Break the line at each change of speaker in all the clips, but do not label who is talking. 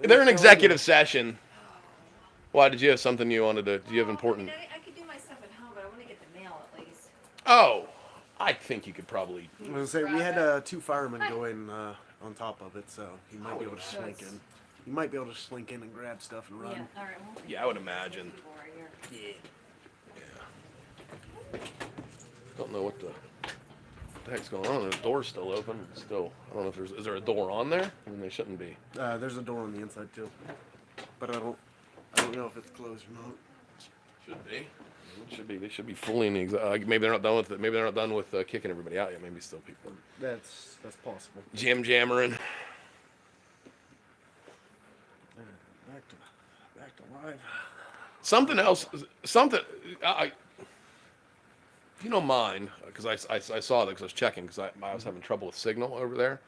They're in executive session. Why did you have something you wanted to? Do you have important?
I, mean, I, I could do my stuff at home, but I want to get the mail at least.
Oh, I think you could probably.
I was gonna say we
Grab
had
it.
uh, two firemen going uh, on top of it, so he might be able to
So
slink
it's-
in. He might be able to slink in and grab stuff and run.
Yeah. All right. Well,
Yeah, I would imagine.
people are here.
Don't know what the, what the heck's going on. The door's still open. It's still, I don't know if there's. Is there a door on there? I mean, there shouldn't be.
Uh, there's a door on the inside too, but I don't, I don't know if it's closed or not.
Should be. Should be. They should be fully in the. exa- Uh, maybe they're not done with it. Maybe they're not done with uh, kicking everybody out yet. Maybe still people
That's that's possible.
jam jammering.
Back to, back to live.
Something else. Something. I. I if you don't mind, because I, I, I saw that because I was checking because I, I was having trouble with signal over there.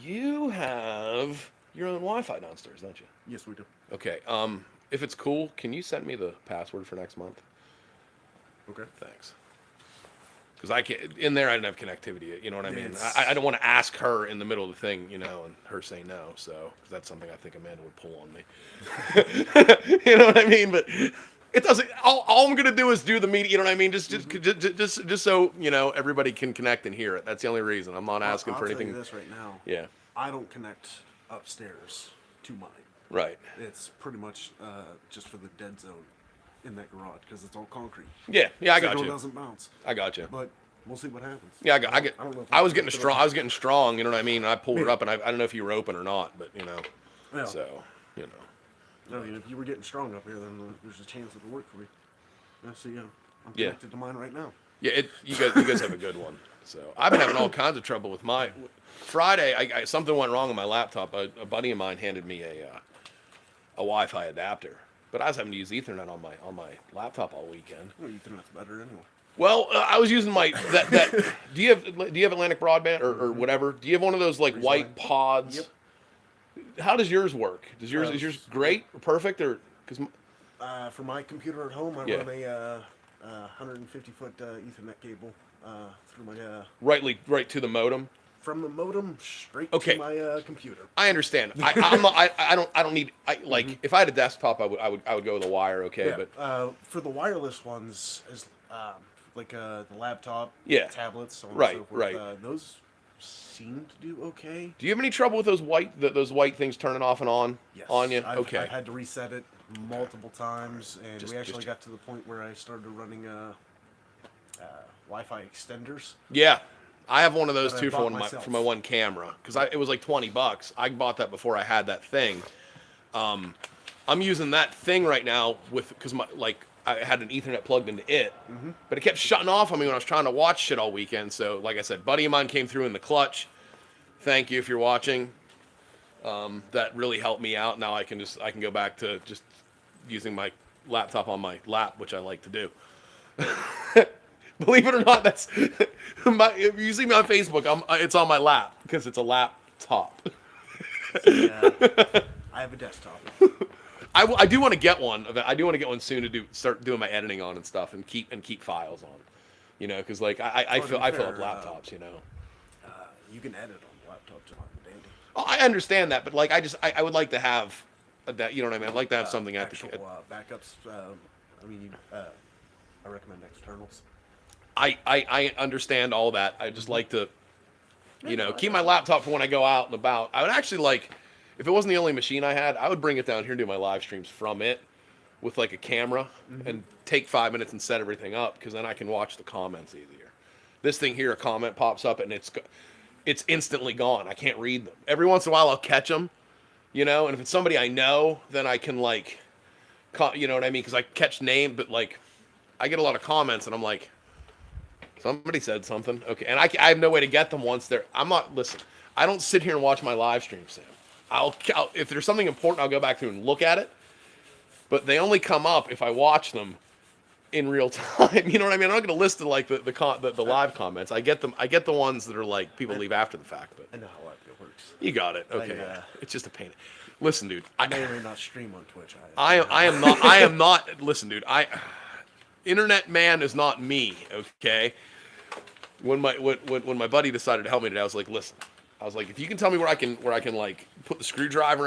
You have your own Wi-Fi downstairs, don't you?
Yes, we do.
Okay. Um, if it's cool, can you send me the password for next month?
Okay.
Thanks. Because I can't in there. I didn't have connectivity. You know what I mean.
It's-
I, I don't want to ask her in the middle of the thing, you know, and her say no. So 'cause that's something I think Amanda would pull on me. you know what I mean? But it doesn't. All, all I'm gonna do is do the media. You know what I mean? Just, just,
Mm-hmm.
just, just, just so you know, everybody can connect and hear it. That's the only reason. I'm not asking
I'll
for
tell you
anything.
this right now.
Yeah.
I don't connect upstairs to mine.
Right.
It's pretty much uh, just for the dead zone in that garage because it's all concrete.
Yeah. Yeah. I
Signal
got you.
doesn't bounce,
I got you.
but we'll see what happens.
Yeah, I, got, I get.
I
I,
don't know if
was
I-
getting strong. I was getting strong. You know what I mean. And I pulled it up, and I, I don't know if you were open or not, but you know.
Yeah.
So you know.
I mean, if you were getting strong up here, then there's a chance it'll work for me. I see. Uh, I'm
Yeah.
connected to mine right now.
Yeah, it, you guys, you guys have a good one. So I've been having all kinds of trouble with my Friday. I, I something went wrong on my laptop. A, a buddy of mine handed me a uh, a Wi-Fi adapter, but I was having to use Ethernet on my on my laptop all weekend.
Well, Ethernet's better anyway.
Well, uh, I was using my that that. do you have do you have Atlantic broadband or, or whatever? Do you have one of those like white
Freeline.
pods?
Mm-hmm. Yep.
How does yours work? Does yours is
Uh,
yours great or perfect or because
Uh, for my computer at home, I
Yeah.
run a uh, uh, 150 foot uh, Ethernet cable uh, through my uh,
rightly right to the modem?
from the modem straight
Okay.
to my uh, computer.
I understand. I, I'm not, I I don't I don't need I like if I had a desktop I would I would I would go with a wire okay
Mm-hmm. Yeah,
but
uh, for the wireless ones, is um, like uh, the laptop,
Yeah.
tablets, so on
Right,
and so forth,
right.
Uh, those seem to do okay.
do you have any trouble with those white th those white things turning off and on
Yes,
on you?
I've,
okay.
I've had to reset it multiple times, and
Just-
we actually
just-
got to the point where I started running uh, uh, Wi-Fi extenders.
yeah. I have one of those
That I
too for
bought
one of my
myself.
for my one camera because it was like twenty bucks. I bought that before I had that thing. Um, I'm using that thing right now with because my like I had an Ethernet plugged into it,
Mm-hmm.
but it kept shutting off on me when I was trying to watch shit all weekend. So like I said, buddy of mine came through in the clutch. Thank you if you're watching. Um, that really helped me out. Now I can just I can go back to just using my laptop on my lap, which I like to do. Believe it or not, that's my. If you see me on Facebook, I'm, uh, it's on my lap because it's a laptop.
Yeah. uh, I have a desktop.
I, w- I do want to get one. of that- I do want to get one soon to do start doing my editing on and stuff, and keep and keep files on. You know, because like I, I, I
Well, to
fill
be
I fill up
fair, uh,
laptops. You know,
Uh, you can edit on the laptop, John. Dandy.
oh, I understand that, but like I just I, I would like to have a- that. You know what I mean? I'd like to have
Uh,
something at
actual,
the.
uh, backups. Um, I mean, you, uh, I recommend externals.
I, I I understand all that. I just like to, you know, keep my laptop for when I go out and about. I would actually like, if it wasn't the only machine I had, I would bring it down here and do my live streams from it, with like a camera, and take five minutes and set everything up because then I can watch the comments easier. This thing here, a comment pops up and it's, go- it's instantly gone. I can't read them. Every once in a while, I'll catch them, you know, and if it's somebody I know, then I can like, co- you know what I mean? Because I catch name, but like, I get a lot of comments and I'm like. Somebody said something. Okay, and I, I have no way to get them once they're. I'm not. Listen, I don't sit here and watch my live stream, Sam. I'll, I'll if there's something important, I'll go back through and look at it. But they only come up if I watch them in real time. You know what I mean? I'm not going to list the, like the the, con, the the live comments. I get them. I get the ones that are like people leave after the fact.
I
But
know how it works.
you got it.
I,
Okay,
uh,
it's just a pain. Listen, dude.
I may
I,
or may not stream on Twitch.
I I am not I am not listen dude I internet man is not me okay when my when, when when my buddy decided to help me today I was like listen I was like if you can tell me where I can where I can like put the screwdriver